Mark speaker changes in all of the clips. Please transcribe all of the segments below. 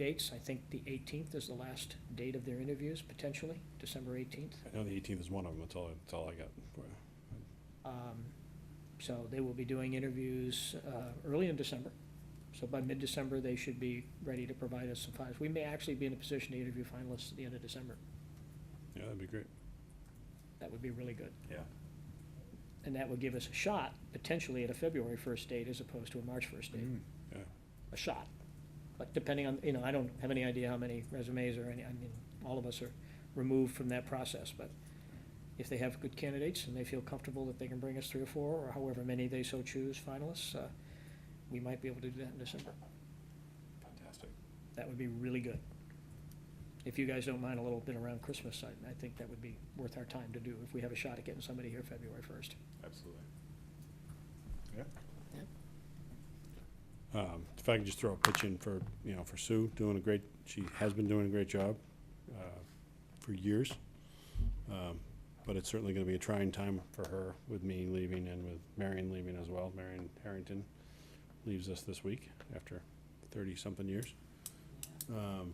Speaker 1: dates. I think the 18th is the last date of their interviews, potentially, December 18th.
Speaker 2: I know the eighteenth is one of them, that's all, that's all I got. for you.
Speaker 1: Um, So they will be doing interviews uh, early in December. So by mid-December, they should be ready to provide us some files. We may actually be in a position to interview finalists at the end of December.
Speaker 2: Yeah, that'd be great.
Speaker 1: That would be really good.
Speaker 2: Yeah.
Speaker 1: And that would give us a shot, potentially at a February 1st date as opposed to a March 1st date.
Speaker 2: Yeah,
Speaker 1: a shot. But depending on, you know, I don't have any idea how many resumes or any, I mean, all of us are removed from that process, but if they have good candidates and they feel comfortable that they can bring us three or four, or however many they so choose finalists, uh, we might be able to do that in December.
Speaker 2: fantastic.
Speaker 1: That would be really good. If you guys don't mind a little bit around Christmas, I, I think that would be worth our time to do if we have a shot at getting somebody here February first.
Speaker 2: Absolutely.
Speaker 1: Yeah.
Speaker 2: Um, if I could just throw a pitch in for, you know, for Sue, doing a great, she has been doing a great job, uh, for years. Um, but it's certainly gonna be a trying time for her with me leaving and with Marion leaving as well. Marion Harrington leaves us this week after thirty-something years. Um,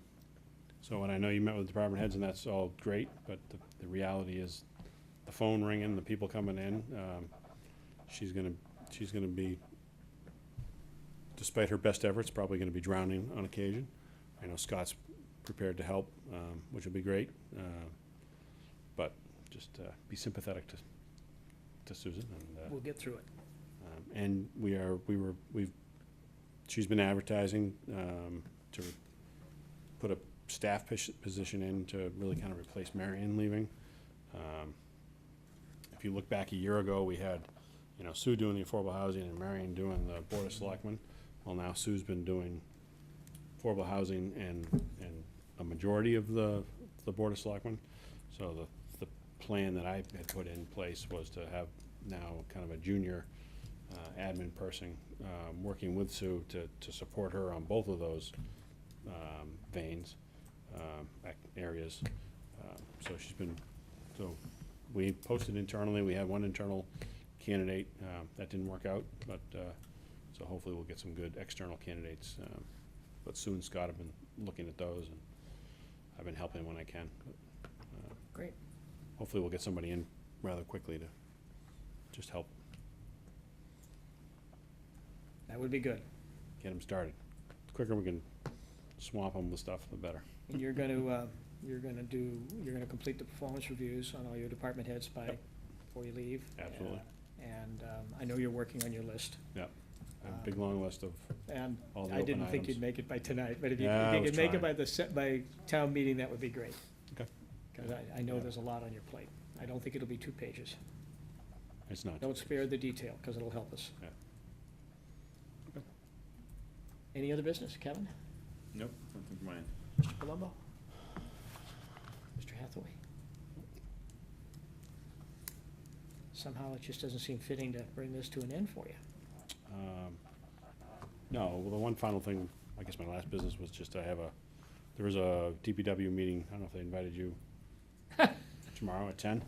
Speaker 2: so, and I know you met with department heads and that's all great, but the, the reality is the phone ringing, the people coming in, um, she's gonna, she's gonna be, despite her best efforts, probably gonna be drowning on occasion. I know Scott's prepared to help, um, which will be great, uh, but just, uh, be sympathetic to, to Susan and, uh,
Speaker 1: We'll get through it.
Speaker 2: um, And we are, we were, we've, she's been advertising um, to put a staff pos- position in to really kind of replace Marion leaving. Um, If you look back a year ago, we had, you know, Sue doing the affordable housing and Marion doing the board of selectmen. Well, now Sue's been doing affordable housing and, and a majority of the, the board of selectmen. So the, the plan that I had put in place was to have now kind of a junior uh, admin person, um, working with Sue to, to support her on both of those um, veins, um, ac- areas. Um, So she's been, so we posted internally, we had one internal candidate, um, that didn't work out, but, uh, so hopefully we'll get some good external candidates. um, But Sue and Scott have been looking at those, and I've been helping when I can. but, uh,
Speaker 1: Great.
Speaker 2: Hopefully we'll get somebody in rather quickly to just help
Speaker 1: That would be good.
Speaker 2: get them started. The quicker we can swamp them with stuff, the better.
Speaker 1: And you're gonna, uh, you're gonna do, you're gonna complete the performance reviews on all your department heads by,
Speaker 2: Yep.
Speaker 1: before you leave.
Speaker 2: Absolutely.
Speaker 1: Uh, And, um, I know you're working on your list,
Speaker 2: I have a big, long list of,
Speaker 1: and
Speaker 2: All the
Speaker 1: Um, I didn't
Speaker 2: open
Speaker 1: think you'd
Speaker 2: items.
Speaker 1: make it by tonight, but if you,
Speaker 2: Yeah,
Speaker 1: if
Speaker 2: I
Speaker 1: you
Speaker 2: was
Speaker 1: could make it
Speaker 2: trying.
Speaker 1: by the, se- by town meeting, that would be great.
Speaker 2: Okay.
Speaker 1: Cause I, I know
Speaker 2: Yeah.
Speaker 1: there's a lot on your plate. I don't think it'll be two pages.
Speaker 2: it's not.
Speaker 1: Don't spare the detail, cause it'll help us.
Speaker 2: Yeah.
Speaker 1: Any other business, Kevin?
Speaker 3: Nope, nothing from mine.
Speaker 1: Mr. Palumbo? Mr. Hathaway? Somehow it just doesn't seem fitting to bring this to an end for you.
Speaker 2: Um, No, well, the one final thing, I guess my last business was just I have a, there was a DPW meeting, I don't know if they invited you tomorrow at ten.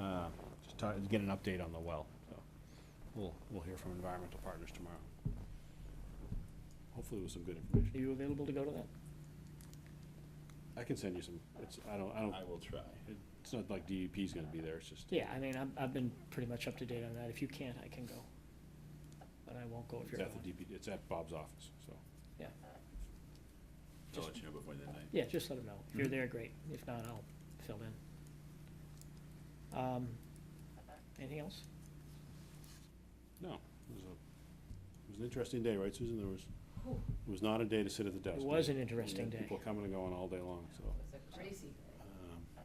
Speaker 2: Uh, Just to get an update on the well, so we'll, we'll hear from environmental partners tomorrow. Hopefully with some good
Speaker 1: Are
Speaker 2: information.
Speaker 1: you available to go to that?
Speaker 2: I can send you some, it's, I don't, I don't,
Speaker 3: I will try.
Speaker 2: it's not like DEP's gonna be there, it's just.
Speaker 1: Yeah, I mean, I'm, I've been pretty much up to date on that. If you can't, I can go. But I won't go if
Speaker 2: It's
Speaker 1: you're
Speaker 2: at the
Speaker 1: going.
Speaker 2: DP, it's at Bob's office, so.
Speaker 3: I'll let you know before the night.
Speaker 1: Yeah, just let them know. If you're there, great. If not, I'll fill in. Um, anything else?
Speaker 2: No, it was a, it was an interesting day, right, Susan? There was, it was not a day to sit at the desk.
Speaker 1: It was
Speaker 2: We
Speaker 1: an interesting
Speaker 2: had
Speaker 1: day.
Speaker 2: People coming and going all day long, so.
Speaker 4: It's a crazy thing.
Speaker 2: um,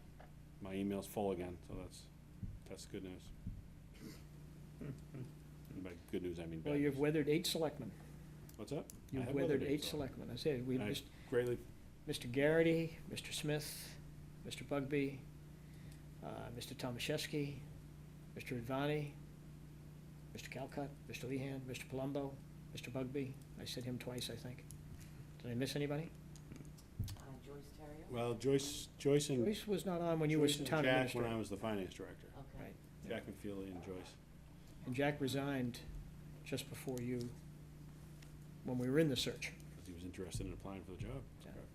Speaker 2: My email's full again, so that's, that's good news. And By good news, I mean
Speaker 1: Well,
Speaker 2: bad news.
Speaker 1: you've weathered eight selectmen.
Speaker 2: What's that? I
Speaker 1: You've
Speaker 2: have
Speaker 1: weathered
Speaker 2: days
Speaker 1: eight
Speaker 2: off.
Speaker 1: selectmen. I said, we
Speaker 2: And I
Speaker 1: just,
Speaker 2: Greatly,
Speaker 1: Mr. Garrity, Mr. Smith, Mr. Bugby, uh, Mr. Tomaszewski, Mr. Advani, Mr. Calcutt, Mr. Lehan, Mr. Palumbo, Mr. Bugby. I said him twice, I think. Did I miss anybody?
Speaker 4: Uh, Joyce Terrio?
Speaker 2: well, Joyce, Joyce and.
Speaker 1: Joyce was not on when you were
Speaker 2: Joyce and
Speaker 1: town
Speaker 2: Jack when I
Speaker 1: administrator.
Speaker 2: was the finance director.
Speaker 4: Okay.
Speaker 1: Right.
Speaker 2: Jack McFeely and Joyce.
Speaker 1: And Jack resigned just before you, when we were in the search.
Speaker 2: Because he was interested in applying for the job.
Speaker 1: Yeah.
Speaker 2: Correct.